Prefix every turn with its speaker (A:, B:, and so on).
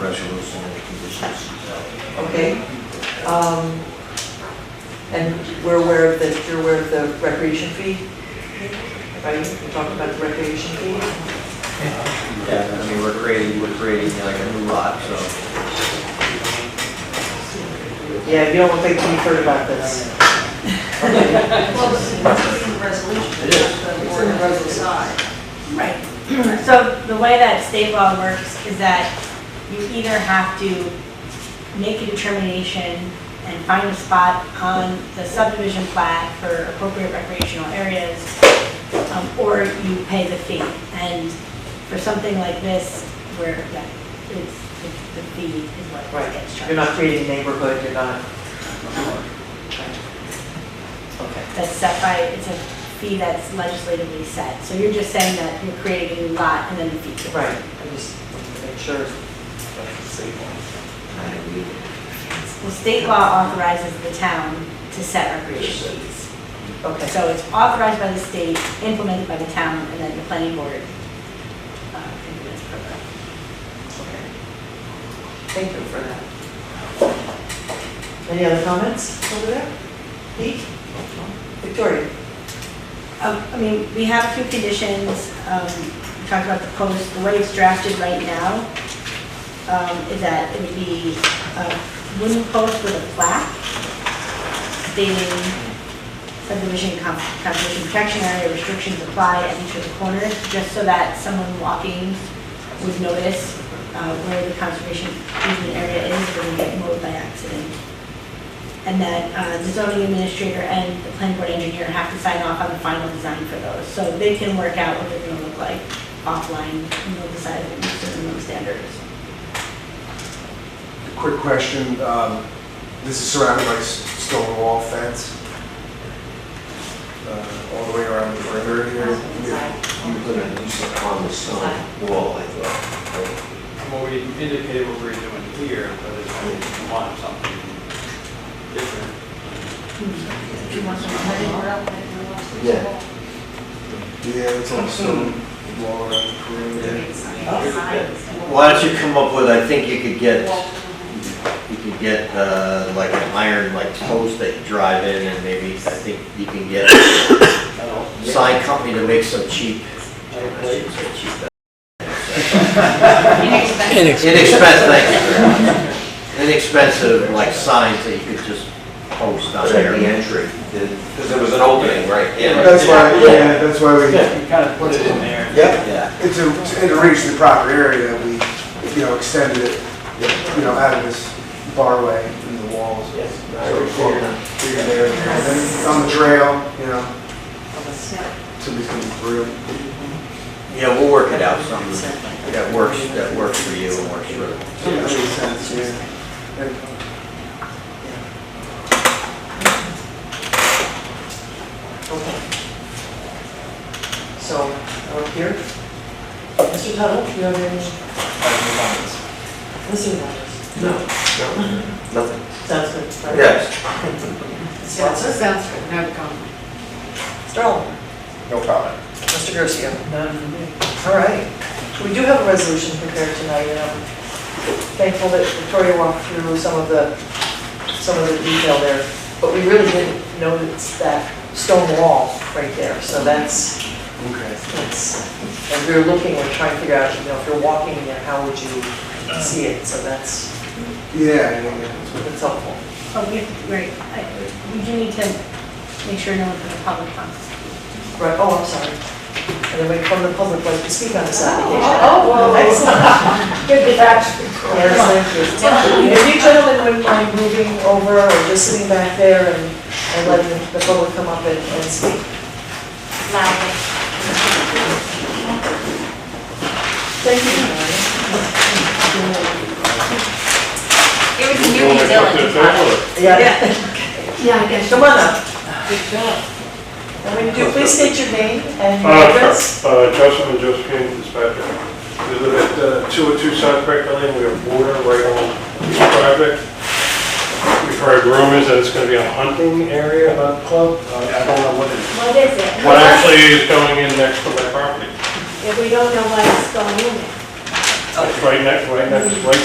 A: resolution and conditions.
B: Okay. Um, And we're aware of the, you're aware of the recreation fee? Right, we talked about the recreation fee?
C: Yeah, I mean, we're creating, we're creating like a new lot, so.
B: Yeah, you don't look like you've heard about this. Okay.
D: Well, this is in the resolution,
C: It is.
D: the board has to decide.
E: Right. So the way that state law works is that you either have to make a determination and find a spot on the subdivision plat for appropriate recreational areas, um, or you pay the fee. And for something like this, where yeah, it's, the the fee is what gets
B: Right,
E: charged.
B: you're not creating a neighborhood, you're not. Okay,
E: that's set by, it's a fee that's legislatively set. So you're just saying that you're creating a new lot and then the fee.
B: right, I just wanted to make sure.
E: Well, state law authorizes the town to set recreation fees.
B: Okay.
E: So it's authorized by the state, implemented by the town, and then the planning board uh, implements program.
B: Okay. Thank you for that. Any other comments over there? Pete? Victoria?
E: Um, I mean, we have a few conditions, um, we talked about the post, the way it's drafted right now, um, is that it would be a wooden post with a plaque stating subdivision con- conservation protection area restrictions apply at each of the corners, just so that someone walking would notice uh, where the conservation easement area is, where we get mowed by accident and that uh, the zoning administrator and the planning board engineer have to sign off on the final design for those. So they can work out what they're gonna look like offline, and they'll decide if it's certain minimum standards.
A: Quick question, um, this is surrounded by s- stone wall fence, uh, all the way around the perimeter here. You put a decent on the stone wall, I thought.
F: Well, we indicated what we were doing here, but if you want something different,
D: If you want some money or else, if you want some-
A: Yeah. Yeah, it's on stone wall around the perimeter.
C: Why don't you come up with, I think you could get, you could get, uh, like an iron, like post that you drive in and maybe, I think you can get a
F: I don't,
C: sign company to make some cheap,
F: I don't-
C: inexpensive, thank you. inexpensive, like signs that you could just post on there.
G: entry. Because there was an opening, right?
C: Yeah,
A: That's why, yeah, that's why we,
F: Yeah, you kind of put it in there.
A: yeah,
C: yeah.
A: And to, and to reach the proper area, we, you know, extended it, you know, out of this barway and the walls. Yes. On the trail, you know, so we can through.
C: Yeah, we'll work it out, something that works, that works for you and works for
A: So that makes sense, yeah. And
B: Okay. So, up here. Mr. Tuttle, do you have any? Mr. Myers?
G: Nothing.
B: Sounds good. right?
C: Yes.
B: Swanson?
D: Sounds good, no comment.
B: Sterling?
G: No comment.
B: Mr. Garcia? None for me. All right. We do have a resolution prepared tonight, and I'm thankful that Victoria walked through some of the, some of the detail there. But we really didn't notice that stone wall right there, so that's,
A: Okay.
B: that's, and we were looking and trying to figure out, you know, if you're walking there, how would you see it? So that's,
A: Yeah, yeah, yeah.
B: that's helpful.
E: Oh, we, right, I- we do need to make sure no one from the public comes.
B: Right, oh, I'm sorry. And then we from the public, like, to speak on this application.
E: Oh, oh, oh.
B: Excellent.
E: Good distraction.
B: Yes, thank you. If you gentlemen wouldn't mind moving over or just sitting back there and and letting the public come up and and speak. Thank you.
D: It was really diligent.
B: Yeah,
D: Yeah, I guess.
B: come on up. Good job. And when you do, please state your name and your
H: Uh,
B: address.
H: sure. Uh, Justin and Josephine dispatcher. We live at uh, 202 South Craig Lane, we have water right on the project. We've heard rumors that it's going to be a hunting area about the club. Uh, I don't know what it,
E: What is it?
H: what actually is going in next to my property.
E: If we don't know what's going on.
H: It's right next, right next, right